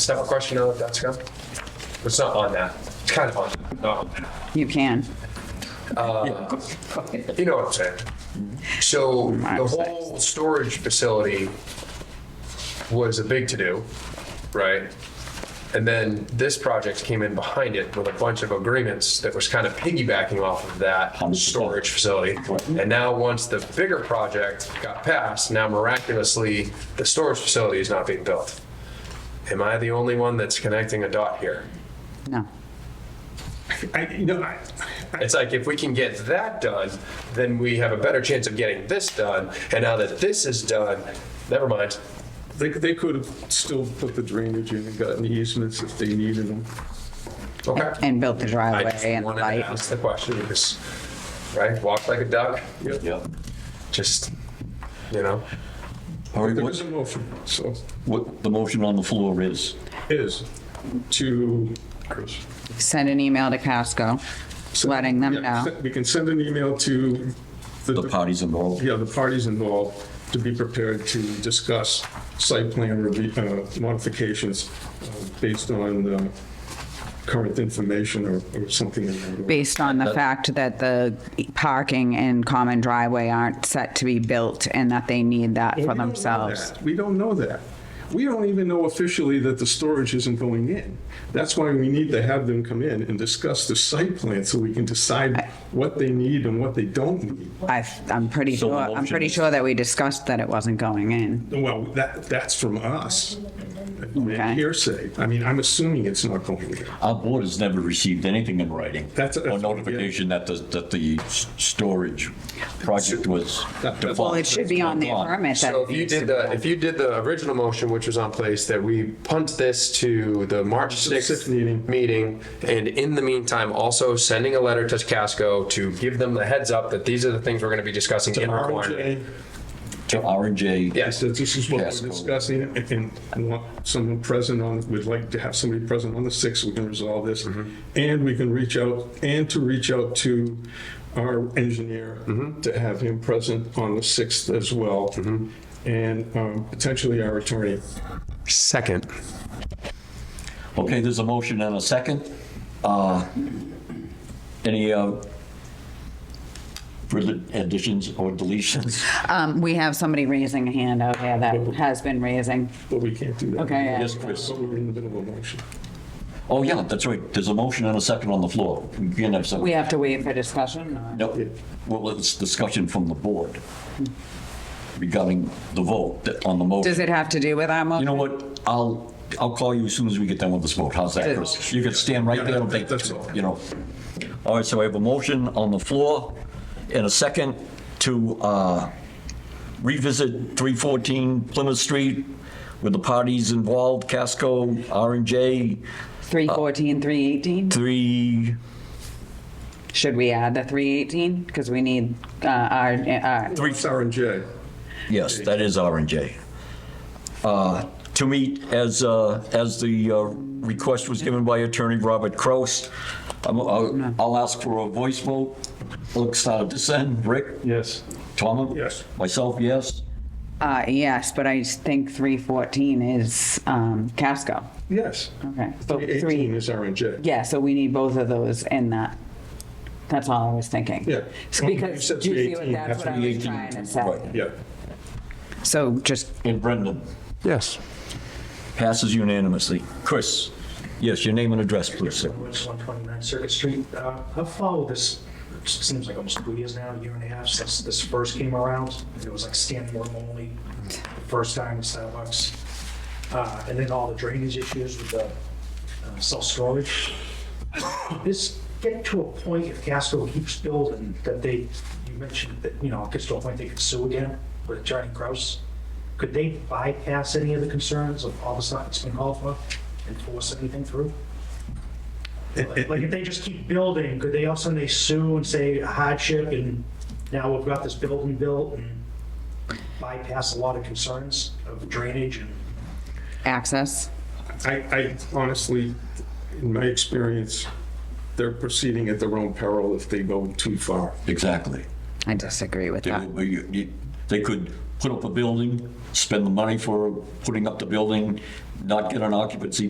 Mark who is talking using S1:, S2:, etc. S1: Step question on Dutchka? It's not on that. It's kind of on that. Not on that.
S2: You can.
S1: You know what I'm saying? So the whole storage facility was a big to-do, right? And then this project came in behind it with a bunch of agreements that was kind of piggybacking off of that storage facility. And now, once the bigger project got passed, now miraculously, the storage facility is not being built. Am I the only one that's connecting a dot here?
S2: No.
S3: I, you know, I, I,
S1: It's like if we can get that done, then we have a better chance of getting this done. And now that this is done, never mind.
S3: they, they could have still put the drainage in and gotten easements if they needed them.
S1: Okay.
S2: And built the
S1: I
S2: driveway
S1: just
S2: and the
S1: wanted to
S2: light.
S1: ask the question because, right, walk like a duck,
S4: Yeah.
S1: just, you know.
S4: All right,
S3: There was
S4: what,
S3: a motion, so,
S4: what the motion on the floor is,
S3: is to.
S2: Send an email to Casco, letting them
S3: Yeah,
S2: know.
S3: We can send an email to
S4: the parties involved.
S3: Yeah, the parties involved to be prepared to discuss site plan review, uh, modifications uh, based on uh, current information or, or something in that. order.
S2: Based on the fact that the parking and common driveway aren't set to be built and that they need that
S3: Well,
S2: for
S3: we don't know
S2: themselves.
S3: that. We don't know that. We don't even know officially that the storage isn't going in. That's why we need to have them come in and discuss the site plan so we can decide what they need and what they don't need.
S2: I, I'm pretty
S4: So the
S2: sure, I'm
S4: motion
S2: pretty
S4: is-
S2: sure that we discussed that it wasn't going in.
S3: Well, that, that's from us.
S2: Okay.
S3: Hearsay. I mean, I'm assuming it's not going in.
S4: Our board has never received anything in writing.
S3: That's-
S4: Or notification that the, that the s- storage project was
S3: That- that's-
S2: Well, it
S4: default.
S2: should be on the
S4: Hold on.
S2: permit that
S1: So
S2: it
S1: if you
S2: needs to
S1: did
S2: be
S1: the,
S2: done.
S1: if you did the original motion, which was on place, that we punt this to the March
S3: the sixth
S1: 6th
S3: meeting.
S1: meeting, and in the meantime, also sending a letter to Casco to give them the heads up that these are the things we're going to be discussing in requirement.
S3: RJ,
S4: To R and J.
S3: I
S1: Yes,
S3: said, this is what
S4: Yes.
S3: we're discussing, and I want someone present on, we'd like to have somebody present on the 6th, we can resolve this.
S4: Mm-hmm.
S3: And we can reach out, and to reach out to our engineer,
S4: Mm-hmm.
S3: to have him present on the 6th as well.
S4: Mm-hmm.
S3: And um, potentially our attorney.
S1: second.
S4: Okay, there's a motion and a second. Uh, Any uh, further additions or deletions?
S2: Um, we have somebody raising a hand out there that has been raising.
S3: But we can't do that.
S2: Okay, yeah.
S4: Yes, Chris.
S3: But we're in the middle of a motion.
S4: Oh, yeah, that's right. There's a motion and a second on the floor. We can have some.
S2: We have to wait for discussion or?
S4: No, well, it's discussion from the board regarding the vote that- on the motion.
S2: Does it have to do with our
S4: You
S2: motion?
S4: know what, I'll, I'll call you as soon as we get done with this vote, how's that, Chris? You can stand right there and take,
S3: That's all.
S4: you know. All right, so I have a motion on the floor and a second to uh, revisit 314 Plymouth Street with the parties involved, Casco, R and J,
S2: 314, 318?
S4: 3,
S2: Should we add the 318? Because we need uh, our, uh, our,
S3: Three. Sarah and Jay.
S4: yes, that is R and J. Uh, To meet as, uh, as the uh, request was given by Attorney Robert Kraus, I'm- I'll I'll ask for a voice vote. Looks out of dissent, Rick?
S3: Yes.
S4: Tom?
S3: Yes.
S4: Myself, yes.
S2: uh, yes, but I think 314 is um, Casco.
S3: Yes.
S2: Okay. so
S3: 18 is Sarah and Jay.
S2: Yeah, so we need both of those in that. That's all I was thinking.
S3: Yeah.
S2: It's
S3: You
S2: Because,
S3: said
S2: do you see
S3: 318,
S2: what, that's
S3: that's
S2: what I was trying to say.
S4: Right.
S3: Yeah.
S2: So just,
S4: And Brendan,
S1: Yes.
S4: passes unanimously. Chris? Yes, your name and address, please, sir.
S5: Woods, 129 Circuit Street. Uh, I've followed this, it seems like almost two years now, a year and a half since this first came around. It was like standing room only, first time in Starbucks. Uh, And then all the drainage issues with the uh, self-storage. This get to a point, if Casco keeps building, that they, you mentioned that, you know, it gets to a point they could sue again with Attorney Kraus. Could they bypass any of the concerns of all the stuff that's been called for and force anything through? Like like, if they just keep building, could they also, they sue and say hardship and now we've got this building built and bypass a lot of concerns of drainage and
S2: access,
S3: I, I honestly, in my experience, they're proceeding at their own peril if they go too far.
S4: Exactly.
S2: I disagree with
S4: They
S2: that.
S4: would be- you- you- they could put up a building, spend the money for putting up the building, not get an occupancy